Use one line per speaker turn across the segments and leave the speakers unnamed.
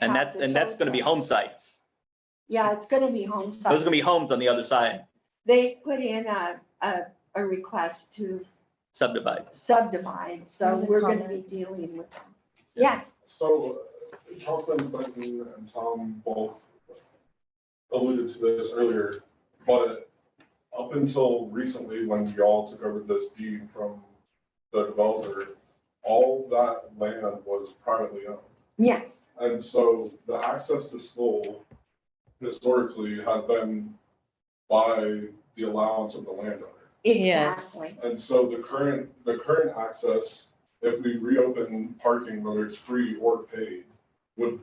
And that's, and that's gonna be home sites.
Yeah, it's gonna be home
Those are gonna
site.
be homes on the other side
They put in a, a, a request to
subdivided.
subdivide, so
There's a
we're gonna be
comment.
dealing with them. Yes,
So uh, Councilman Clinton and Tom both alluded to this earlier, but up until recently, when y'all took over this deed from the developer, all that land was privately owned.
yes,
And so the access to school historically has been by the allowance of the landowner.
Yes.
exactly.
And so the current, the current access, if we reopen parking, whether it's free or paid, would,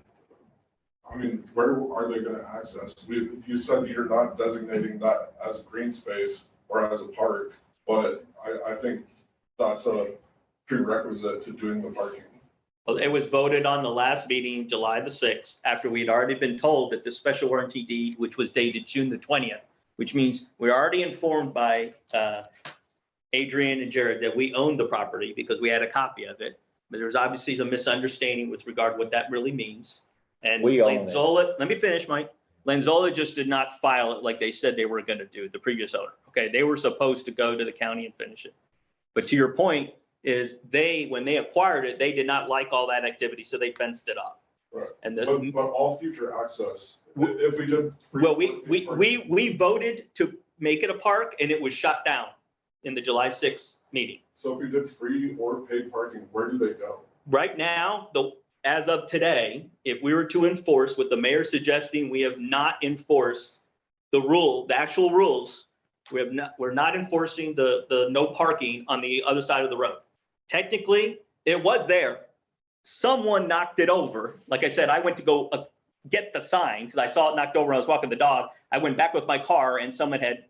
I mean, where are they gonna access? We, you said you're not designating that as green space or as a park, but I, I think that's a prerequisite to doing the parking.
Well, it was voted on the last meeting, July the sixth, after we had already been told that the special warranty deed, which was dated June the twentieth, which means we're already informed by uh, Adrian and Jared that we owned the property because we had a copy of it. But there was obviously some misunderstanding with regard to what that really means. And
We own it.
Lanzola, let me finish, Mike. Lanzola just did not file it like they said they were going to do, the previous owner. Okay, they were supposed to go to the county and finish it. But to your point, is they, when they acquired it, they did not like all that activity, so they fenced it off.
Right.
And
But,
the,
but all future access, i- if we did. free
well, we,
or
we,
paid parking,
we, we voted to make it a park and it was shut down in the July sixth meeting.
So if we did free or paid parking, where do they go?
Right now, the, as of today, if we were to enforce what the mayor suggesting, we have not enforced the rule, the actual rules. We have not, we're not enforcing the, the no parking on the other side of the road. Technically, it was there. Someone knocked it over. Like I said, I went to go uh, get the sign because I saw it knocked over. when I was walking the dog. I went back with my car and someone had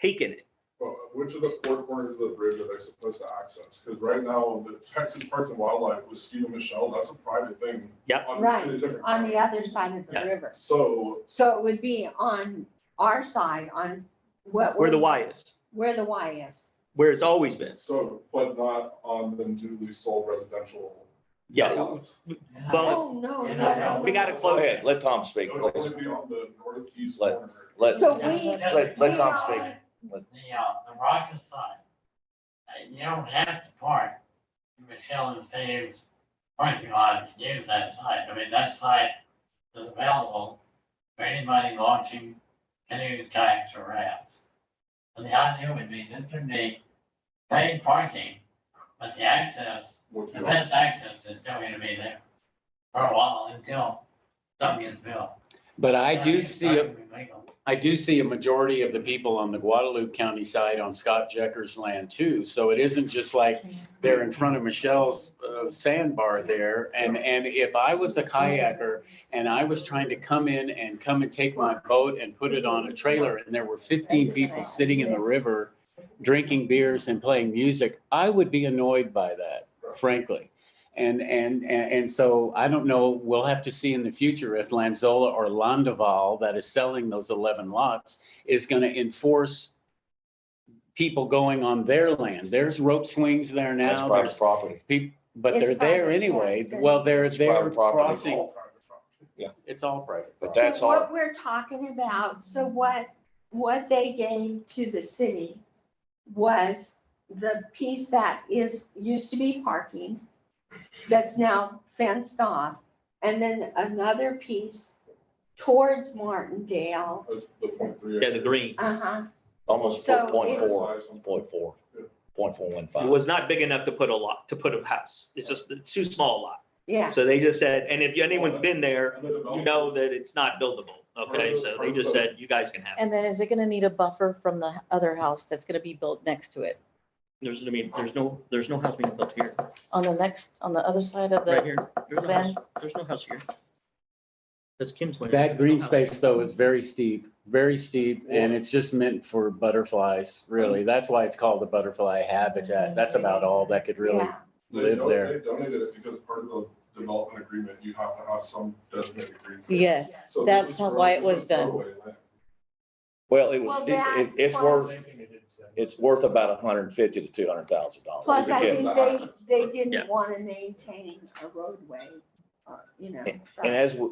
taken it.
Well, which of the four corners of the bridge are they supposed to access? Because right now, the Texas Parks and Wildlife with Steve and Michelle, that's a private thing.
Yep.
on- in a
Right,
different
On the
county.
other side of the
Yeah.
river.
So,
So it would be on our side, on what.
Where the
we're-
Y is,
Where the Y is.
where it's always been.
so, but not on the newly sold residential.
Yeah.
lots.
But
Oh, no,
Yeah,
no.
we gotta
Go
close it.
ahead, let Tom
It
speak.
would only be on the northeast
Let-
corner.
let-
So we.
Let, let Tom speak.
the, uh, the Rochester side, uh, you don't have to park in Michelle and Steve's parking lot to use that site. I mean, that site is available for anybody launching canoes, kayaks, or rafts. And the idea would be this would be paid parking, but the access,
Would
the
be on-
best access is still going to be there for a while until something gets built.
But I do
It's
see,
not
a-
gonna be legal.
I do see a majority of the people on the Guadalupe County side on Scott Jecker's land too. So it isn't just like they're in front of Michelle's uh, sandbar there. And, and if I was a kayaker and I was trying to come in and come and take my boat and put it on a trailer and there were fifteen people sitting in the river drinking beers and playing music, I would be annoyed by that, frankly. And, and, and and so I don't know, we'll have to see in the future if Lanzola or Londoval that is selling those 11 lots is going to enforce people going on their land. There's rope swings there
That's
now,
private
there's
property.
people, but
It's
they're there
private, yeah,
anyway.
it's gonna-
Well, they're, they're
private property.
crossing,
All private property.
it's all private.
But
So
that's all,
What we're talking about, so what, what they gave to the city was the piece that is, used to be parking, that's now fenced off, and then another piece towards Martindale.
That's the point three.
yeah, the green.
Uh-huh,
almost
So
point four,
Size on-
point four, point four one
It
five.
was not big enough to put a lot, to put a house. It's just, it's too small a lot.
yeah.
So they just said, and if anyone's been there,
And the
you
developer-
know that it's not buildable. Okay, so they just said, you guys can have it.
And then is it gonna need a buffer from the other house that's gonna be built next to it?
There's, I mean, there's no, there's no house being built here,
On the next, on the other side of
right
the,
here. There's no house, there's no house here. That's Kim's land.
That green
There's no house.
space though is very steep, very steep, and it's just meant for butterflies, really.
Mm.
That's why it's called the butterfly habitat. That's about all that could really.
yeah.
They
live
don-
there.
They donated it because part of the development agreement, you have to have some designated green space.
yes,
So this
That's
was
not
throw-
why it
this
was done.
throwaway land.
Well, it was,
Well,
it-
that
it- it's
plus-
worth, it's worth about hundred and fifty to two hundred thousand dollars.
Plus, I
did
think they,
that.
they
Yeah.
didn't want to maintain a roadway, uh, you know. so-
And as, we-